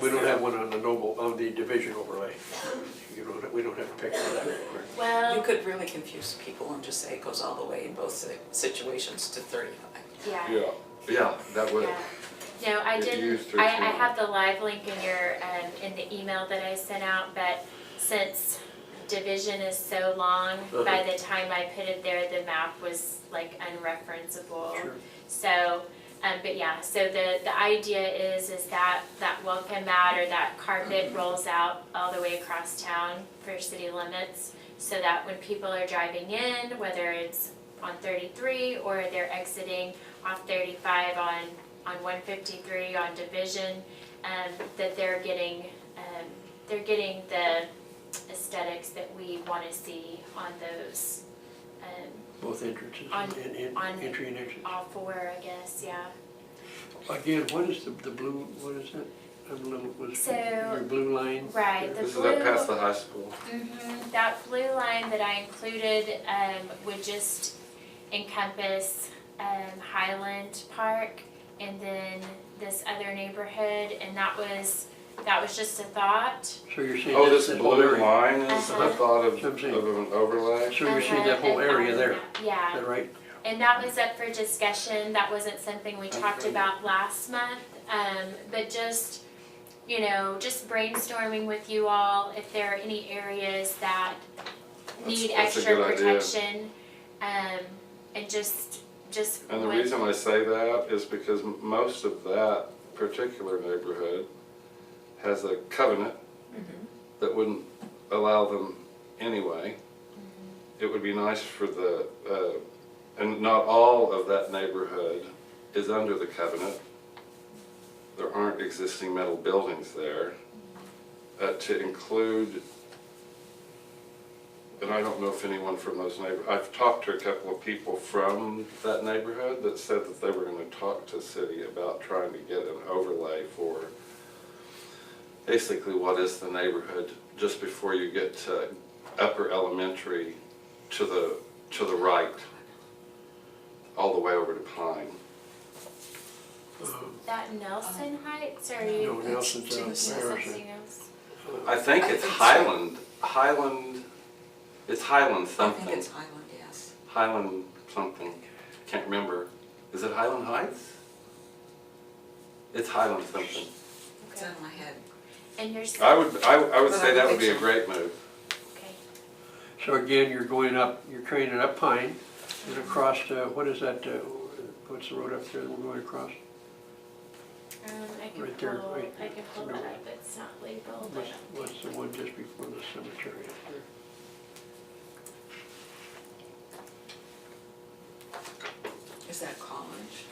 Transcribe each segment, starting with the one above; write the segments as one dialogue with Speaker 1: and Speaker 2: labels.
Speaker 1: We don't have one on the noble, on the division overlay. You don't, we don't have a picture of that anywhere.
Speaker 2: Well,
Speaker 3: You could really confuse people and just say it goes all the way in both si- situations to thirty-five.
Speaker 2: yeah,
Speaker 4: Yeah, yeah, that would,
Speaker 2: yeah. No, I
Speaker 4: If you
Speaker 2: didn't,
Speaker 4: use
Speaker 2: I, I
Speaker 4: 13.
Speaker 2: have the live link in your, um, in the email that I sent out, but since division is so long,
Speaker 1: Uh-huh.
Speaker 2: by the time I put it there, the map was like unreferenceable.
Speaker 1: Sure.
Speaker 2: So, um, but yeah, so the, the idea is, is that, that welcome mat or that carpet rolls out all the way across town for city limits. So that when people are driving in, whether it's on thirty-three or they're exiting off thirty-five on, on one fifty-three on Division, um, that they're getting, um, they're getting the aesthetics that we wanna see on those, um,
Speaker 1: Both entrances
Speaker 2: On-
Speaker 1: and, and
Speaker 2: on-
Speaker 1: entry and exit.
Speaker 2: all four, I guess, yeah.
Speaker 1: Again, what is the, the blue, what is it? I'm a little, was
Speaker 2: So-
Speaker 1: your blue line?
Speaker 2: Right, the
Speaker 4: this is up
Speaker 2: blue,
Speaker 4: past the high school.
Speaker 2: Mhm, that blue line that I included, um, would just encompass, um, Highland Park and then this other neighborhood, and that was, that was just a thought.
Speaker 1: So you're saying
Speaker 4: Oh,
Speaker 1: that's
Speaker 4: this
Speaker 1: that whole
Speaker 4: blue
Speaker 1: area?
Speaker 4: line is
Speaker 2: Uh-huh.
Speaker 4: the thought of,
Speaker 1: Sure
Speaker 4: of
Speaker 1: thing.
Speaker 4: an overlay?
Speaker 1: So you're seeing that whole
Speaker 2: And then-
Speaker 1: area there, is
Speaker 2: Yeah.
Speaker 1: that right?
Speaker 2: And that was up for discussion, that wasn't something we talked
Speaker 4: Okay.
Speaker 2: about last month, um, but just, you know, just brainstorming with you all, if there are any areas that need
Speaker 4: That's- that's a
Speaker 2: extra
Speaker 4: good idea.
Speaker 2: protection. Um, and just, just.
Speaker 4: And the
Speaker 2: what-
Speaker 4: reason I say that is because m- most of that particular neighborhood has a covenant that wouldn't allow them anyway. It would be nice for the, uh, and not all of that neighborhood is under the covenant. There aren't existing metal buildings there. Uh, To include, and I don't know if anyone from those neighbor, I've talked to a couple of people from that neighborhood that said that they were gonna talk to city about trying to get an overlay for basically what is the neighborhood just before you get to upper elementary to the, to the right, all the way over to Pine.
Speaker 1: Um,
Speaker 2: That Nelson Heights, or
Speaker 1: No,
Speaker 2: you,
Speaker 1: Nelson's
Speaker 3: Jim
Speaker 1: out
Speaker 2: is
Speaker 3: says
Speaker 1: there.
Speaker 3: Harrison.
Speaker 2: something else?
Speaker 1: Uh,
Speaker 4: I think
Speaker 3: I
Speaker 4: it's
Speaker 3: think so.
Speaker 4: Highland, Highland, it's Highland
Speaker 3: I think
Speaker 4: something,
Speaker 3: it's Highland, yes.
Speaker 4: Highland something, can't remember. Is it Highland Heights? It's Highland something.
Speaker 3: It's
Speaker 2: Okay.
Speaker 3: in my head.
Speaker 2: And you're, s-
Speaker 4: I would, I, I would
Speaker 3: But I
Speaker 4: say
Speaker 3: don't
Speaker 4: that would be
Speaker 3: think
Speaker 4: a
Speaker 3: so.
Speaker 4: great move.
Speaker 2: okay,
Speaker 1: So again, you're going up, you're training up Pine and across, uh, what is that, uh, what's the road up there that we're going across?
Speaker 2: um, I can
Speaker 1: Right there,
Speaker 2: pull,
Speaker 1: right
Speaker 2: I can pull that
Speaker 1: there.
Speaker 2: up, it's not labeled, I
Speaker 1: What's,
Speaker 2: don't think.
Speaker 1: what's the one just before the cemetery up there?
Speaker 3: Is that college?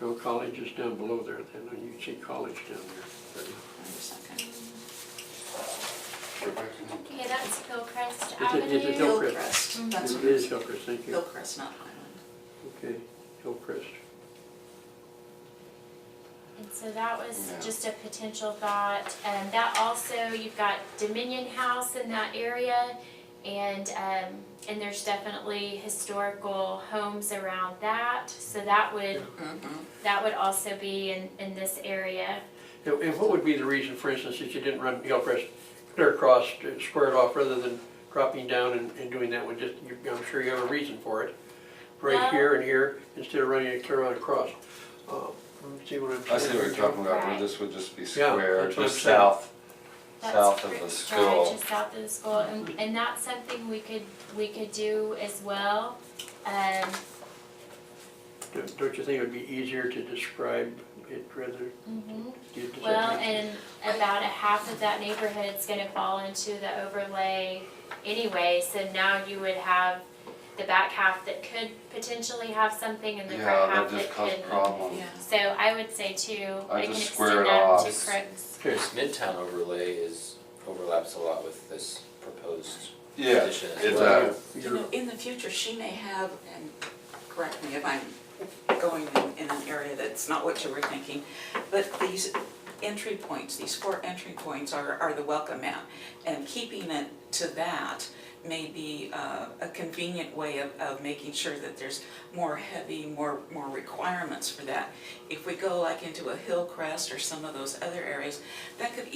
Speaker 1: No, college is down below there then, and you see college down there.
Speaker 3: Wait a second.
Speaker 2: Okay, that's Hillcrest
Speaker 1: Is it-
Speaker 2: Avenue.
Speaker 1: is it Hill-
Speaker 3: Hillcrest, that's what
Speaker 1: It
Speaker 3: it
Speaker 1: is
Speaker 3: is.
Speaker 1: Hillcrest, thank you.
Speaker 3: Hillcrest, not Highland.
Speaker 1: Okay, Hillcrest.
Speaker 2: And so that was
Speaker 4: Yeah.
Speaker 2: just a potential thought, and that also, you've got Dominion House in that area, and, um, and there's definitely historical homes around that, so that would,
Speaker 3: Mhm.
Speaker 2: that would also be in, in this area.
Speaker 1: And and what would be the reason, for instance, that you didn't run Hillcrest clear across, uh, square it off, rather than dropping down and, and doing that one? Just, you- I'm sure you have a reason for it. Right
Speaker 2: Well-
Speaker 1: here and here, instead of running it clear on across. Uh, See what I'm saying?
Speaker 4: I see what you're talking about, where this would just be
Speaker 1: Yeah,
Speaker 4: square,
Speaker 1: that's what I'm
Speaker 4: just
Speaker 1: saying.
Speaker 4: south,
Speaker 2: That's
Speaker 4: south of
Speaker 2: pretty-
Speaker 4: the
Speaker 2: Right,
Speaker 4: school.
Speaker 2: just south of the school, and, and that's something we could, we could do as well, um,
Speaker 1: Don't- Don't you think it would be easier to describe it rather?
Speaker 2: mhm.
Speaker 1: does that
Speaker 2: Well,
Speaker 1: make sense?
Speaker 2: and about a half of that neighborhood's gonna fall into the overlay anyway, so now you would have the back half that could potentially have something and the
Speaker 4: Yeah,
Speaker 2: front half
Speaker 4: that
Speaker 2: that
Speaker 4: just caused
Speaker 2: couldn't.
Speaker 4: problems.
Speaker 3: Yeah.
Speaker 2: So I would say too,
Speaker 4: I
Speaker 2: I can
Speaker 4: just square
Speaker 2: extend
Speaker 4: it
Speaker 2: that
Speaker 4: off.
Speaker 2: to Craig's.
Speaker 5: This midtown overlay is, overlaps a lot with this proposed
Speaker 4: Yeah,
Speaker 5: addition as
Speaker 4: it
Speaker 5: well.
Speaker 4: does.
Speaker 3: You
Speaker 1: You're-
Speaker 3: know, in the future, she may have, and correct me if I'm going in- in an area that's not what you were thinking, but these entry points, these four entry points are, are the welcome mat. And keeping it to that may be uh, a convenient way of, of making sure that there's more heavy, more, more requirements for that. If we go like into a hill crest or some of those other areas, that could